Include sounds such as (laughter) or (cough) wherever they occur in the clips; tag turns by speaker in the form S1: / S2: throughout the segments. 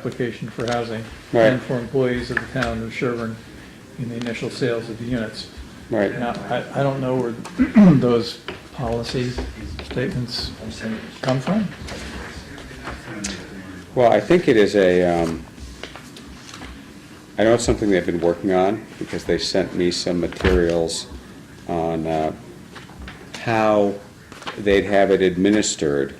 S1: application for housing
S2: Right.
S1: and for employees of the town of Sherburne in the initial sales of the units.
S2: Right.
S1: Now, I, I don't know where (clears throat) those policies, statements come from.
S2: Well, I think it is a, um, I know it's something they've been working on, because they sent me some materials on uh, how they'd have it administered.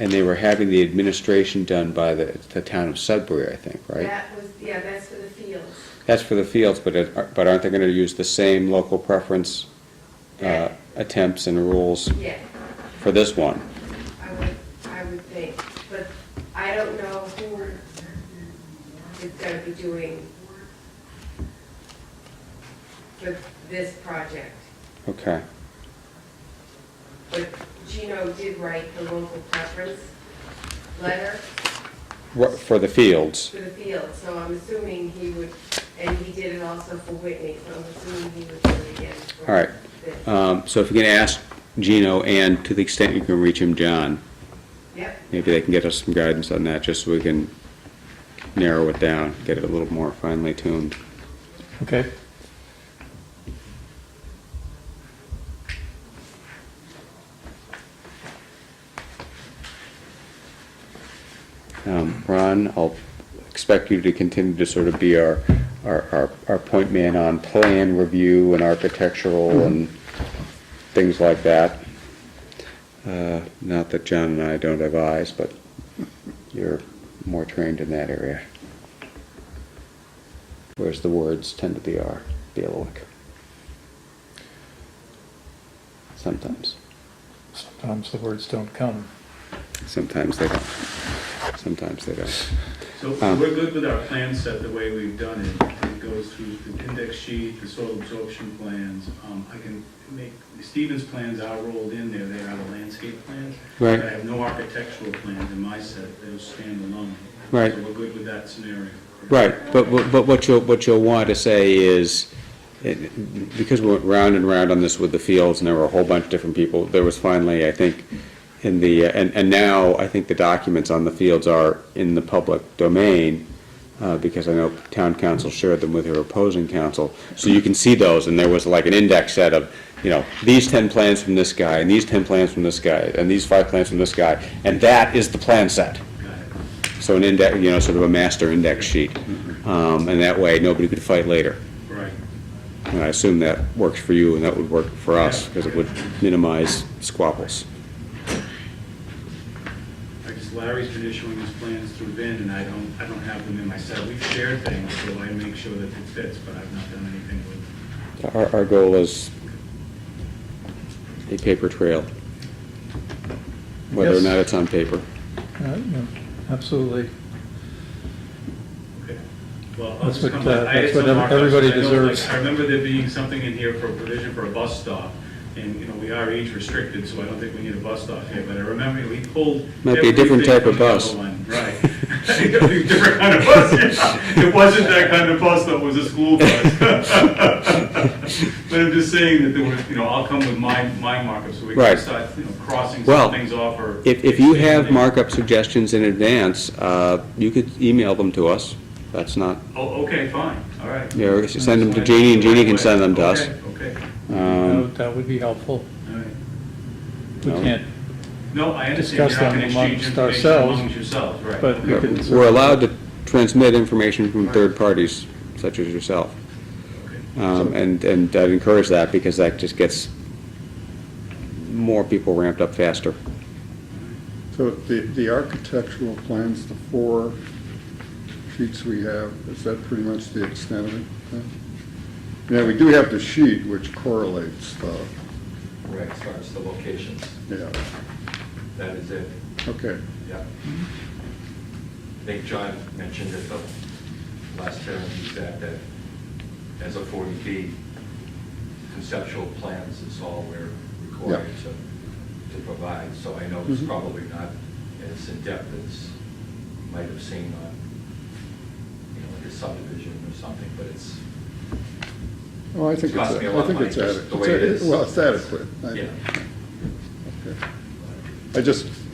S2: And they were having the administration done by the, the town of Sudbury, I think, right?
S3: That was, yeah, that's for the fields.
S2: That's for the fields, but it, but aren't they gonna use the same local preference uh, attempts and rules
S3: Yeah,
S2: for this one?
S3: I would, I would think, but I don't know who is gonna be doing for this project.
S2: Okay.
S3: But Gino did write the local preference letter
S2: Ru- For the fields,
S3: for the field, so I'm assuming he would, and he did it also for Whitney, so I'm assuming he would do it again. for
S2: all right.
S3: this.
S2: Um, So if you can ask Gino, and to the extent you can reach him, John,
S3: Yep,
S2: maybe they can get us some guidance on that, just so we can narrow it down, get it a little more finely tuned.
S1: Okay.
S2: Um, Ron, I'll expect you to continue to sort of be our, our, our- our point man on plan review and architectural and things like that. Uh, Not that John and I don't have eyes, but you're more trained in that area. Whereas the words tend to be our bailiwick. Sometimes.
S1: Sometimes the words don't come.
S2: Sometimes they don't. Sometimes they don't.
S4: So
S2: Um,
S4: we're good with our plan set the way we've done it. It goes through the index sheet, the soil absorption plans. Um, I can make, Stevens' plans are rolled in there, they are the landscape plans.
S2: Right.
S4: I have no architectural plans in my set, those stand alone.
S2: Right.
S4: So we're good with that scenario.
S2: Right, but, but but what you'll, what you'll want to say is, it- because we went round and round on this with the fields, and there were a whole bunch of different people, there was finally, I think, in the, uh, and, and now I think the documents on the fields are in the public domain, uh, because I know town council shared them with her opposing council, so you can see those, and there was like an index set of, you know, these ten plans from this guy, and these ten plans from this guy, and these five plans from this guy, and that is the plan set.
S4: Got it.
S2: So an index, you know, sort of a master index sheet, um, and that way, nobody could fight later.
S4: Right.
S2: And I assume that works for you, and that would work for us, because it would minimize squabbles.
S4: I guess Larry's been issuing his plans through Vin, and I don't, I don't have them in my set. We've shared things, so I make sure that it fits, but I've not done anything with
S2: Our, our goal is a paper trail, whether or
S1: Yes.
S2: not it's on paper.
S1: Uh, no, Absolutely.
S4: Okay. Well, I'll
S1: That's
S4: just
S1: what,
S4: come
S1: uh,
S4: back. I had
S1: that's what
S4: some markups.
S1: everybody
S4: I know,
S1: deserves.
S4: like, I remember there being something in here for a provision for a bus stop, and, you know, we are age restricted, so I don't think we need a bus stop here, but I remember we pulled.
S2: Might be a different
S4: everything
S2: type of
S4: from the other
S2: bus.
S4: one, Right. (laughs) It'll be a Different kind of bus, yeah. It wasn't that kind of bus, though, it was a school bus. (laughs) But I'm just saying that there were, you know, I'll come with my, my markups, so we can
S2: Right.
S4: start, you know, crossing
S2: Well,
S4: some things off or.
S2: If, if you have
S4: expanding.
S2: markup suggestions in advance, uh, you could email them to us. That's not,
S4: Oh, okay, fine, all right.
S2: you know, send them to Jeannie, and Jeannie can send them to us.
S4: Okay, okay.
S1: That
S2: Um,
S1: would- That would be helpful.
S4: All right.
S1: We
S2: No.
S1: can't,
S4: No, I understand
S1: Discuss
S4: you're not
S1: them
S4: going to exchange
S1: amongst
S4: information
S1: ourselves,
S4: amongst yourselves, right?
S1: but we can.
S2: We're allowed to transmit information from third parties, such as yourself.
S4: Okay.
S2: Um, And, and I'd encourage that, because that just gets more people ramped up faster.
S5: So the, the architectural plans, the four sheets we have, is that pretty much the extent of it? then? Yeah, we do have the sheet which correlates the,
S6: Correct, as far as the locations,
S5: yeah,
S6: that is it,
S5: okay.
S6: yeah. I think John mentioned at the last hearing, he said that as a 40B, conceptual plans is all we're required to, to provide, so I know it's
S5: Mhm.
S6: probably not as in-depth as you might have seen on, you know, like a subdivision or something, but it's,
S5: Well, Oh, I think
S6: It's
S5: it's,
S6: cost me a
S5: I
S6: lot of
S5: think
S6: money,
S5: it's
S6: just
S5: adequate.
S6: the way it is.
S5: Well, it's adequate. I-
S6: yeah.
S5: okay. I just,